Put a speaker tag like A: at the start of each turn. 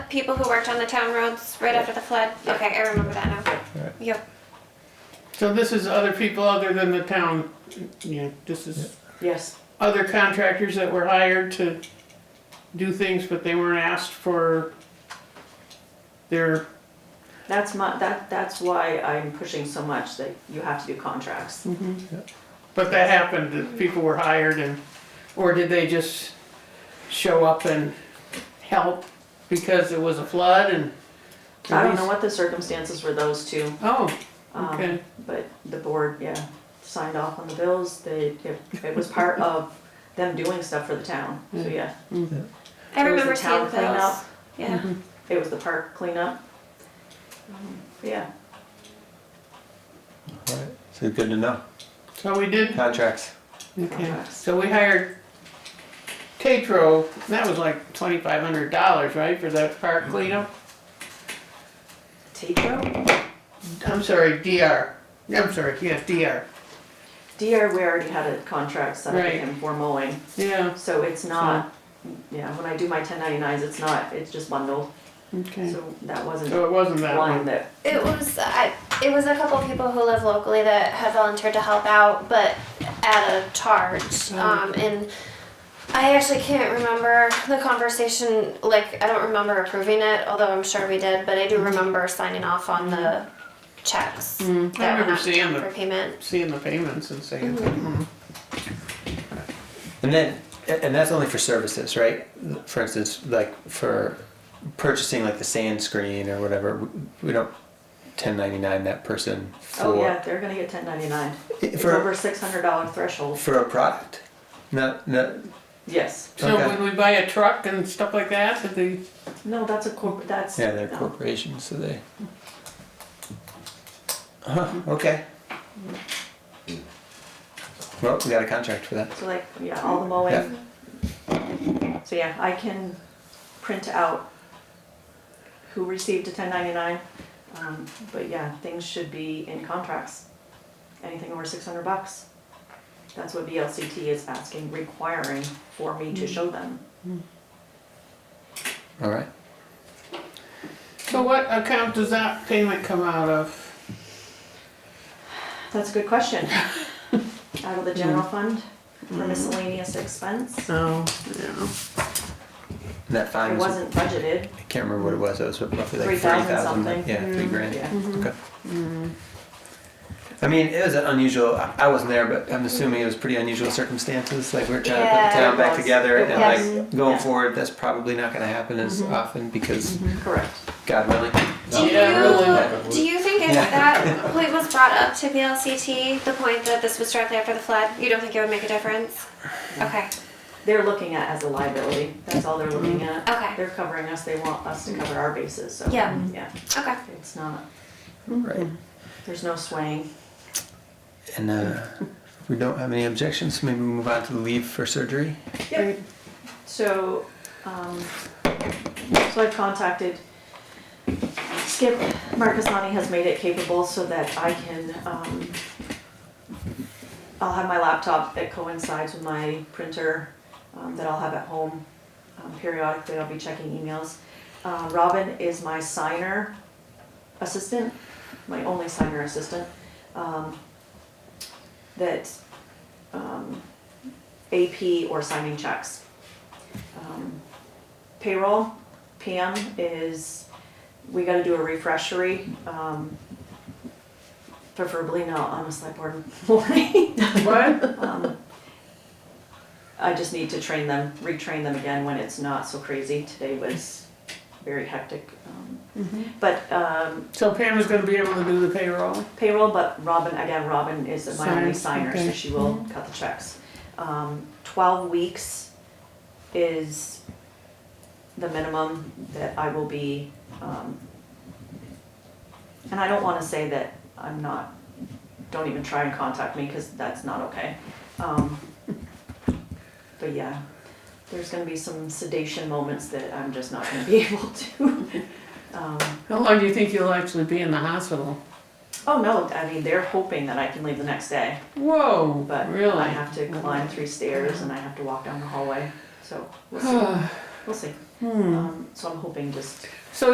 A: people who worked on the town roads right after the flood? Okay, I remember that now.
B: Right.
A: Yep,
C: So this is other people other than the town, you know, this is
D: Yes.
C: other contractors that were hired to do things, but they weren't asked for their,
D: That's my, that, that's why I'm pushing so much that you have to do contracts.
C: but that happened, that people were hired and, or did they just show up and help because it was a flood and?
D: I don't know what the circumstances were those two,
C: Oh,
D: um,
C: Okay.
D: but the board, yeah, signed off on the bills, they, it, it was part of them doing stuff for the town, so yeah.
A: I
D: It was the
A: remember seeing
D: town cleanup.
A: those. Yeah,
D: It was the park cleanup. Um, Yeah,
B: Alright, so good to know.
C: so we did
B: Contracts.
C: Okay,
D: Contracts.
C: so we hired Tetro, and that was like twenty-five hundred dollars, right, for that park cleanup?
D: Tico,
C: I'm sorry, DR, I'm sorry, yes, DR,
D: DR, we already had a contract signed with
C: Right.
D: him for mowing,
C: yeah,
D: so it's not, yeah, when I do my ten ninety-nines, it's not, it's just bundled,
C: okay.
D: so that wasn't
C: So it wasn't that
D: one
C: one,
D: that,
A: it was, I, it was a couple of people who live locally that had volunteered to help out, but at a charge. Um, and I actually can't remember the conversation, like, I don't remember approving it, although I'm sure we did, but I do remember signing off on the checks.
C: Mm,
A: that went
C: I remember
A: out to
C: seeing
A: town
C: them.
A: For payment.
C: seeing the payments and saying, "Hmm,
B: And then, and that's only for services, right? For instance, like for purchasing like the sand screen or whatever, we- we don't 1099 that person for
D: oh yeah, they're gonna get ten ninety-nine. It's
B: for,
D: over six hundred dollar threshold,
B: for a product. Not, not
D: yes.
C: so
B: Okay.
C: when we buy a truck and stuff like that, that they,
D: No, that's a corp, that's.
B: yeah, they're
D: no.
B: corporations, so they. Huh, okay. Well, we got a contract for that.
D: So like, yeah, all the mowing. So yeah, I can print out who received a ten ninety-nine. Um, but yeah, things should be in contracts. Anything over six hundred bucks. That's what VLCT is asking, requiring for me to show them.
B: All right.
C: so what account does that payment come out of?
D: That's a good question. Out of the general
B: Mm-hmm.
D: fund for miscellaneous expense.
C: Oh, yeah,
B: And that fine
D: It
B: was,
D: wasn't budgeted,
B: I can't remember what it was. It was roughly like
D: 3,000
B: 3,000.
D: something. Mm-hmm.
B: Yeah, three grand.
D: yeah.
B: Okay.
D: Mm.
B: I mean, it was an unusual. I I wasn't there, but I'm assuming it was pretty unusual circumstances. Like we're trying to put the
A: Yeah,
B: town
D: it
B: back
D: was.
B: together,
D: It
A: was.
B: and like going
D: Yeah. Mm-hmm.
B: forward, that's probably not going to happen as often because
D: Correct.
B: God willing.
A: Do you,
C: Yeah,
B: really.
A: do you think if
B: Yeah.
A: that point was brought up to VLCT, the point that this was shortly after the flood, you don't think it would make a difference? Okay,
D: They're looking at as a liability, that's all they're looking at.
A: Okay.
D: They're covering us, they want us to cover our bases, so.
A: Yeah.
D: Yeah,
A: okay.
D: it's not, Mm-hmm.
B: Right.
D: there's no swaying.
B: And uh, if we don't have any objections, maybe we move on to the leave for surgery.
D: Yep. So, um, so I've contacted Skip, Marcasani has made it capable so that I can, um, I'll have my laptop that coincides with my printer, um, that I'll have at home. Um, periodically, I'll be checking emails. Uh, Robin is my signer assistant, my only signer assistant, um, that, um, AP or signing checks. Um, Payroll, PM is, we gotta do a refreshery, um, preferably not on a select board morning.
C: what?
D: Um, I just need to train them, retrain them again when it's not so crazy. Today was very hectic. um, But um,
C: So Pam is gonna be able to do the payroll?
D: payroll, but Robin, again, Robin is my only
C: Sign,
D: signer, so
C: okay.
D: she will cut the checks. Um, twelve weeks is the minimum that I will be, um, and I don't wanna say that I'm not, don't even try and contact me, cause that's not okay. Um, but yeah, there's gonna be some sedation moments that I'm just not gonna be able to. Um,
C: How long do you think you'll actually be in the hospital?
D: Oh no, I mean, they're hoping that I can leave the next day,
C: Whoa,
D: but
C: really?
D: I have to climb three stairs and I have to walk down the hallway, so we'll see. We'll see. Um, so I'm hoping just
C: So